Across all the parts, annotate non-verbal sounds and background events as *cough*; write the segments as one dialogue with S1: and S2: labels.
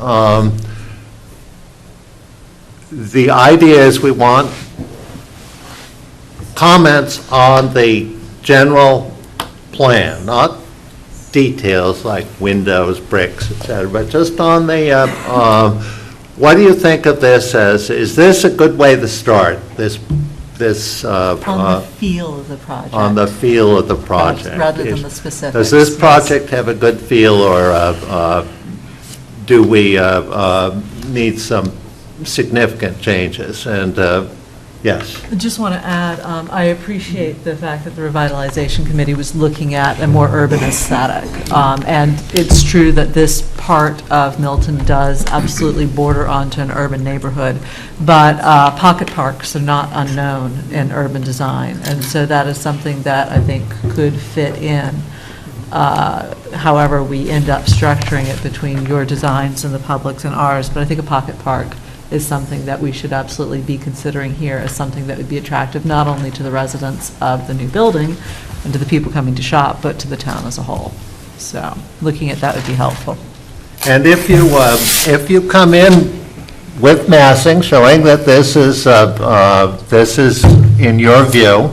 S1: Um, The idea is we want comments on the general plan, not details like windows, bricks, et cetera, but just on the, uh, um, what do you think of this as, is this a good way to start, this, this, uh,
S2: On
S1: uh,
S2: the feel of the project.
S1: on the feel of the project?
S2: Rather than
S1: Is-
S2: the specifics.
S1: Does this
S2: yes.
S1: project have a good feel, or uh, uh, do we uh, uh, need some significant changes? And, uh, yes,
S2: I Just want to add, um, I appreciate the fact that the revitalization committee was looking at a more urban aesthetic. Um, And it's true that this part of Milton does absolutely border onto an urban neighborhood, but uh, pocket parks are not unknown in urban design. And so that is something that I think could fit in, uh, however we end up structuring it between your designs and the public's and ours. But I think a pocket park is something that we should absolutely be considering here as something that would be attractive not only to the residents of the new building and to the people coming to shop, but to the town as a whole. So looking at that would be helpful.
S1: and if you, uh, if you come in with massing, showing that this is, uh, uh, this is, in your view,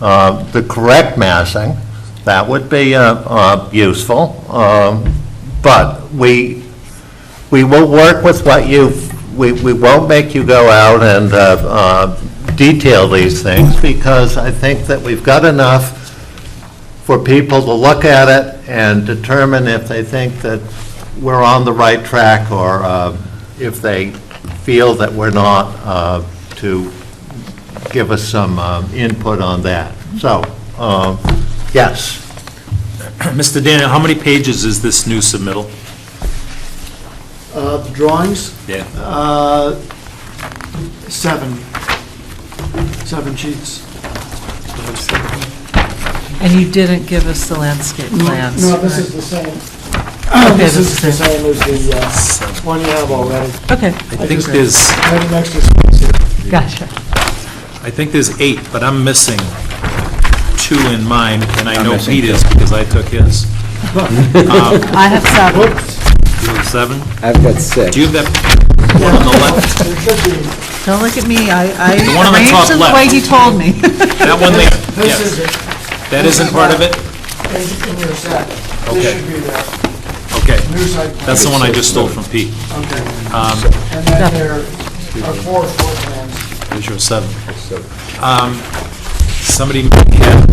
S1: uh, the correct massing, that would be uh, uh, useful, Um, but we, we will work with what you've, we, we won't make you go out and uh, uh, detail these things, because I think that we've got enough for people to look at it and determine if they think that we're on the right track, or uh, if they feel that we're not, uh, to give us some um, input on that. So, um, yes.
S3: Mr. Daniel, how many pages is this new submittal?
S4: Uh, the drawings,
S3: Yeah.
S4: uh, seven, seven sheets.
S2: And you didn't give us the landscape plans.
S4: No, this is
S2: right?
S4: the same.
S2: Okay,
S4: This
S2: this
S4: is the
S2: is the-
S4: same as the uh, one you have already.
S2: Okay,
S3: I think there's,
S4: Right next to it.
S2: gotcha.
S3: I think there's eight, but I'm missing two in mine, and I know Pete is, because I took his.
S2: I have seven.
S3: You have Seven?
S5: I've got six.
S3: Do you have that one on the left?
S4: It should be,
S2: Don't look at me, I,
S3: one on the
S2: I
S3: top
S2: arranged it the
S3: left.
S2: way he told me. *laughs*
S3: That one there?
S4: this is
S3: Yes.
S4: it,
S3: That isn't part of it?
S4: in in your set. This
S3: Okay.
S4: should be there,
S3: Okay.
S4: new site. plan.
S3: That's the one I Um, just stole from Pete.
S4: Okay. And then there are four floor plans.
S3: There's your seven. Um, Somebody may have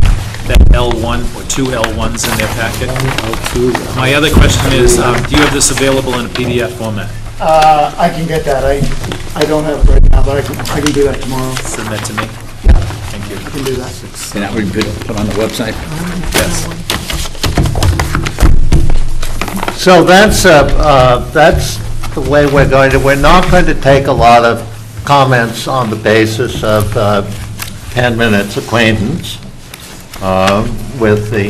S3: that L1 or two L1s in their packet. My other question is, um, do you have this available in a PDF format?
S4: Uh, I can get that, I, I don't have it right now, but I can, I can do that tomorrow,
S3: Send that to me. Thank you.
S4: I can do that.
S5: And that would be put- put on the website?
S1: So that's, uh, uh, that's the way we're going to, we're not going to take a lot of comments on the basis of uh, 10 minutes acquaintance uh, with the,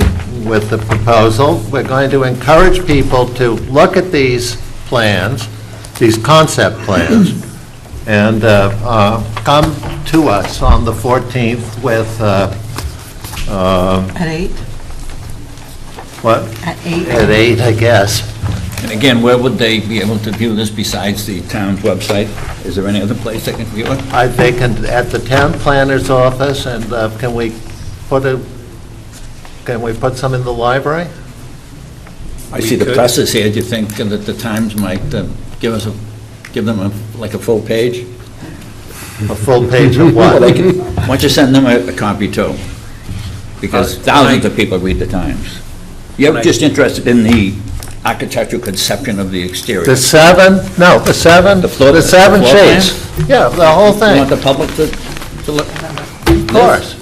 S1: with the proposal. We're going to encourage people to look at these plans, these concept plans, and uh, uh, come to us on the 14th with, uh, uh,
S2: At eight?
S1: what,
S2: At eight?
S1: at 8, I guess.
S5: And again, where would they be able to view this besides the town's website? Is there any other place they can view it?
S1: I think in- at the town planner's office, and uh, can we put a, can we put some in the library?
S5: I
S3: We
S5: see the
S3: could.
S5: press is here, do you think that the Times might uh, give us, a give them a like a full page?
S1: A
S5: *laughs*
S1: full page of
S5: Well, they
S1: what?
S5: can, why don't you send them a a copy too? Because
S3: Uh,
S5: thousands
S3: I-
S5: of people read the Times. You're
S3: Right.
S5: just interested in the architectural conception of the exterior.
S1: The seven, no, the seven,
S5: The floor-
S1: the seven
S5: the floor plan?
S1: sheets. Yeah, the whole
S5: You want
S1: thing,
S5: the public to, to look?
S1: of course.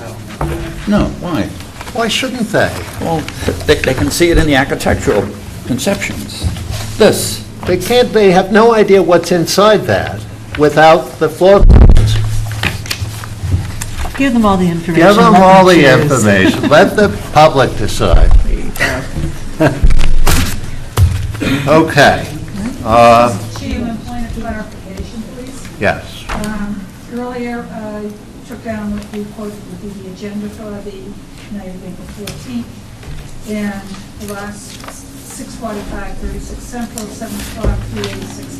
S5: No, why?
S1: Why shouldn't they?
S5: Well, they, they can see it in the architectural conceptions. This,
S1: They can't, they have no idea what's inside that without the floor plans.
S2: Give them all the information.
S1: Give them
S2: let
S1: all the
S2: choose.
S1: information, *laughs* let the public *laughs* decide. Okay, uh,
S6: Chair, one point of clarification, please.
S1: yes.
S6: Um, Earlier, uh, you took down what you quoted would be the agenda for the night of April 14th, and the last 645, 36 Central, 7 o'clock, 386